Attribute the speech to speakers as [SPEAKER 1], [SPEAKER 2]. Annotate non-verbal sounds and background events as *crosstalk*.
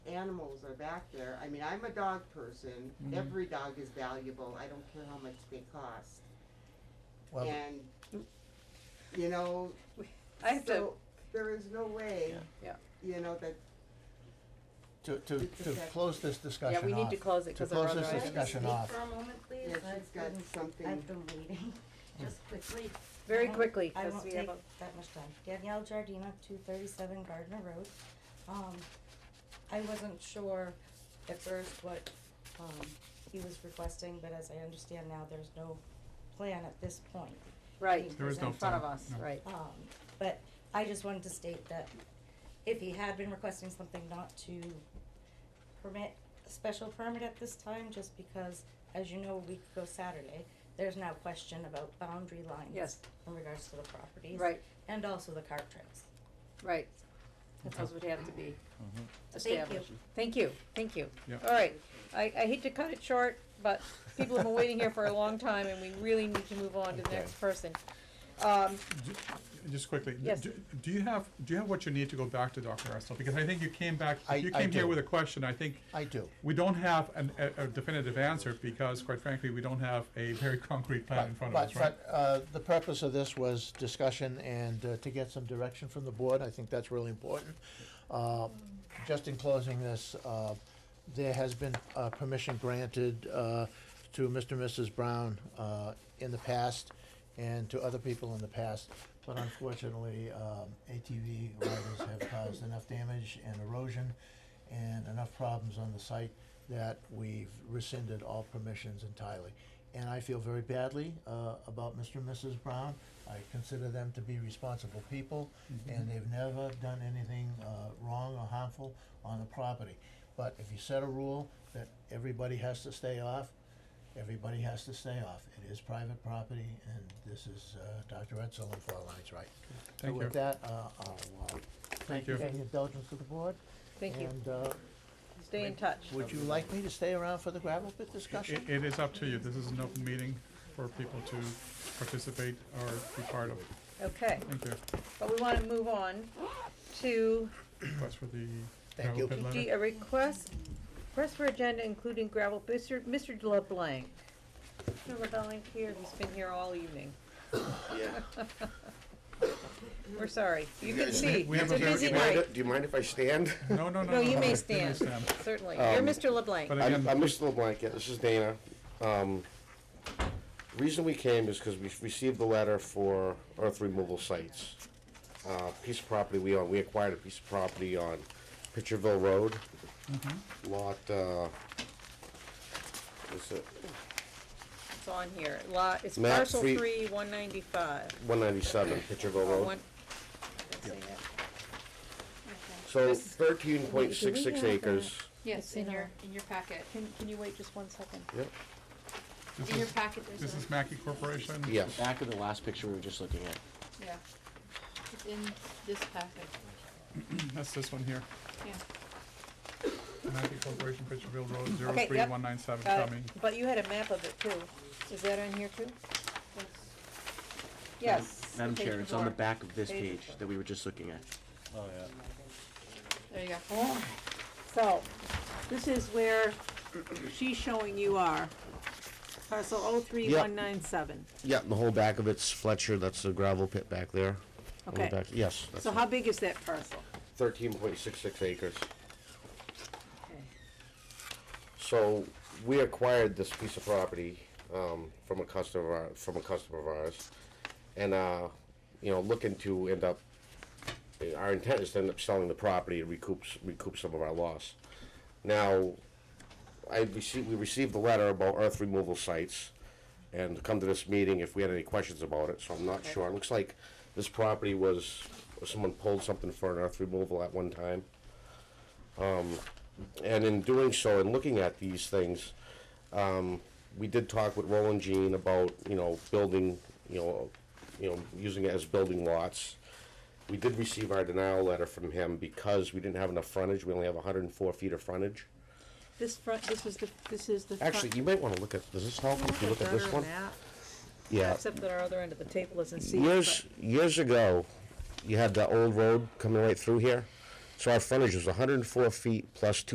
[SPEAKER 1] animals are back there, I mean, I'm a dog person,
[SPEAKER 2] Mhm.
[SPEAKER 1] every dog is valuable, I don't care how much they cost.
[SPEAKER 2] Well,
[SPEAKER 1] And, you know,
[SPEAKER 3] I have to,
[SPEAKER 1] so, there is no way,
[SPEAKER 3] Yeah.
[SPEAKER 1] you know, that
[SPEAKER 2] to, to,
[SPEAKER 1] It's
[SPEAKER 2] to
[SPEAKER 1] okay.
[SPEAKER 2] close this discussion
[SPEAKER 3] yeah,
[SPEAKER 2] off.
[SPEAKER 3] we need to close it
[SPEAKER 2] To
[SPEAKER 3] because of our
[SPEAKER 2] close
[SPEAKER 3] other
[SPEAKER 2] this
[SPEAKER 3] items.
[SPEAKER 2] discussion
[SPEAKER 4] Speak
[SPEAKER 2] off.
[SPEAKER 4] for a moment, please?
[SPEAKER 1] Yeah, she's
[SPEAKER 4] I've
[SPEAKER 1] got
[SPEAKER 4] been-
[SPEAKER 1] something.
[SPEAKER 4] I've been waiting, *laughs* just quickly.
[SPEAKER 3] Very
[SPEAKER 4] I won't-
[SPEAKER 3] quickly, 'cause we have
[SPEAKER 4] I won't take that much time. Danielle Giardina, two thirty-seven Gardner Road. Um, I wasn't sure at first what, um, he was requesting, but as I understand now, there's no plan at this point.
[SPEAKER 3] Right,
[SPEAKER 5] There is
[SPEAKER 3] in
[SPEAKER 5] no
[SPEAKER 3] front of
[SPEAKER 5] plan,
[SPEAKER 3] us,
[SPEAKER 5] no.
[SPEAKER 3] right.
[SPEAKER 4] Um, but I just wanted to state that if he had been requesting something not to permit, a special permit at this time, just because, as you know, a week ago Saturday, there's now question about boundary lines.
[SPEAKER 3] Yes.
[SPEAKER 4] In regards to the properties.
[SPEAKER 3] Right,
[SPEAKER 4] And also the cart trails.
[SPEAKER 3] right. Those would have to be
[SPEAKER 2] Mhm.
[SPEAKER 4] Thank you.
[SPEAKER 3] established. Thank you, thank you.
[SPEAKER 5] Yeah.
[SPEAKER 3] All right, I, I hate to cut it short, but people have been waiting here for a long time and we really need to move on to the
[SPEAKER 2] Okay.
[SPEAKER 3] next person. Um,
[SPEAKER 5] Ju- Just quickly, d-
[SPEAKER 3] Yes.
[SPEAKER 5] d- do you have, do you have what you need to go back to Dr. Russell? Because I think you came back,
[SPEAKER 2] I-
[SPEAKER 5] you
[SPEAKER 2] I
[SPEAKER 5] came here
[SPEAKER 2] do.
[SPEAKER 5] with a question, I think
[SPEAKER 2] I do.
[SPEAKER 5] we don't have an, a a definitive answer because quite frankly, we don't have a very concrete plan in front of
[SPEAKER 2] But-
[SPEAKER 5] us, right?
[SPEAKER 2] But, uh, the purpose of this was discussion and uh, to get some direction from the board, I think that's really important. Uh, Just in closing this, uh, there has been, uh, permission granted, uh, to Mr. and Mrs. Brown, uh, in the past and to other people in the past, but unfortunately, um, ATV riders have caused enough damage and erosion and enough problems on the site that we've rescinded all permissions entirely. And I feel very badly uh, about Mr. and Mrs. Brown. I consider them to be responsible people,
[SPEAKER 5] Mm-hmm.
[SPEAKER 2] and they've never done anything uh, wrong or harmful on the property. But if you set a rule that everybody has to stay off, everybody has to stay off. It is private property, and this is uh, Dr. Edsel and Four Lines Right.
[SPEAKER 5] Thank
[SPEAKER 2] so
[SPEAKER 5] you.
[SPEAKER 2] with that, uh, I'll uh, thank you
[SPEAKER 5] you.
[SPEAKER 2] for the indulgence of the board.
[SPEAKER 3] Thank you,
[SPEAKER 2] And uh,
[SPEAKER 3] stay in touch.
[SPEAKER 2] would you like me to stay around for the gravel pit
[SPEAKER 5] I-
[SPEAKER 2] discussion?
[SPEAKER 5] it is up to you, this is an open meeting for people to participate or be part of.
[SPEAKER 3] Okay,
[SPEAKER 5] Thank you,
[SPEAKER 3] but we wanna move on to
[SPEAKER 5] that's for the
[SPEAKER 2] Thank
[SPEAKER 5] gravel
[SPEAKER 2] you.
[SPEAKER 5] pit
[SPEAKER 3] D,
[SPEAKER 5] letter.
[SPEAKER 3] a request, request for agenda including gravel, Mr. Mr. LeBlanc. Mr. LeBlanc here, he's been here all evening.
[SPEAKER 6] *laughs* Yeah.
[SPEAKER 3] *laughs* We're sorry, you can
[SPEAKER 6] guys-
[SPEAKER 3] see,
[SPEAKER 5] We have
[SPEAKER 3] it's a
[SPEAKER 5] a very-
[SPEAKER 3] busy
[SPEAKER 6] Do you mind-
[SPEAKER 3] night,
[SPEAKER 6] Do you mind if I stand?
[SPEAKER 5] No, no, no,
[SPEAKER 3] No, you may
[SPEAKER 5] you
[SPEAKER 3] stand. certainly, you're
[SPEAKER 6] Um,
[SPEAKER 3] Mr. LeBlanc.
[SPEAKER 5] But
[SPEAKER 6] I'm,
[SPEAKER 5] again,
[SPEAKER 6] I'm Mr. LeBlanc, yeah, this is Dana. Um, reason we came is because we received the letter for earth removal sites. Uh, piece of property we own, we acquired a piece of property on Pitcherville Road. Lot, uh, is it
[SPEAKER 3] It's on here, lot, it's
[SPEAKER 6] Map
[SPEAKER 3] parcel
[SPEAKER 6] three-
[SPEAKER 3] three, one ninety-five,
[SPEAKER 6] one ninety-seven, Pitcherville
[SPEAKER 3] or
[SPEAKER 6] Road?
[SPEAKER 3] Oh, one. that's it.
[SPEAKER 6] So
[SPEAKER 3] This-
[SPEAKER 6] thirteen point six six acres.
[SPEAKER 7] Yes, in your, in your packet.
[SPEAKER 3] Can, can you wait just one second?
[SPEAKER 6] Yep,
[SPEAKER 5] this
[SPEAKER 7] In your
[SPEAKER 5] is,
[SPEAKER 7] packet,
[SPEAKER 5] this
[SPEAKER 7] there's
[SPEAKER 5] is
[SPEAKER 7] a,
[SPEAKER 5] Mackey Corporation?
[SPEAKER 6] yes.
[SPEAKER 8] back of the last picture we were just looking at.
[SPEAKER 7] yeah. It's in this packet,
[SPEAKER 5] That's this one here,
[SPEAKER 7] yeah.
[SPEAKER 5] Mackey Corporation, Pitcherville Road, zero
[SPEAKER 3] Okay,
[SPEAKER 5] three
[SPEAKER 3] yep.
[SPEAKER 5] one nine seven,
[SPEAKER 3] Uh,
[SPEAKER 5] Cumming.
[SPEAKER 3] but you had a map of it too, is that on here too?
[SPEAKER 7] That's-
[SPEAKER 3] Yes.
[SPEAKER 8] Madam
[SPEAKER 3] page
[SPEAKER 8] Chair, it's on the
[SPEAKER 3] before.
[SPEAKER 8] back of this
[SPEAKER 3] Page
[SPEAKER 8] page that we were just looking at.
[SPEAKER 7] There you go.
[SPEAKER 3] So, this is where she's showing you are, parcel oh three one nine seven,
[SPEAKER 6] Yeah, the whole back of it's Fletcher, that's the gravel pit back there. On the
[SPEAKER 3] Okay.
[SPEAKER 6] back- Yes. that's
[SPEAKER 3] so
[SPEAKER 6] it.
[SPEAKER 3] how big is that parcel?
[SPEAKER 6] thirteen point six six acres. So we acquired this piece of property um, from a customer of our- from a customer of ours, and uh, you know looking to end up. Our intent is to end up selling the property and recoup s- recoup some of our loss. Now, I received we received a letter about earth removal sites, and to come to this meeting if we had any questions about it. So I'm not sure. It looks like this property was someone pulled something for an earth removal at one time. And in doing so, and looking at these things, um, we did talk with Roland Jean about, you know, building, you know, you know, using it as building lots. We did receive our denial letter from him because we didn't have enough frontage, we only have hundred and four feet of frontage.
[SPEAKER 3] This front, this was the, this is the front.
[SPEAKER 6] Actually, you might wanna look at, does this help if you look at this one? Yeah.
[SPEAKER 3] Except that our other end of the table isn't seen,
[SPEAKER 6] Years, years ago, you had the old road coming right through here, so our frontage was hundred and four feet plus two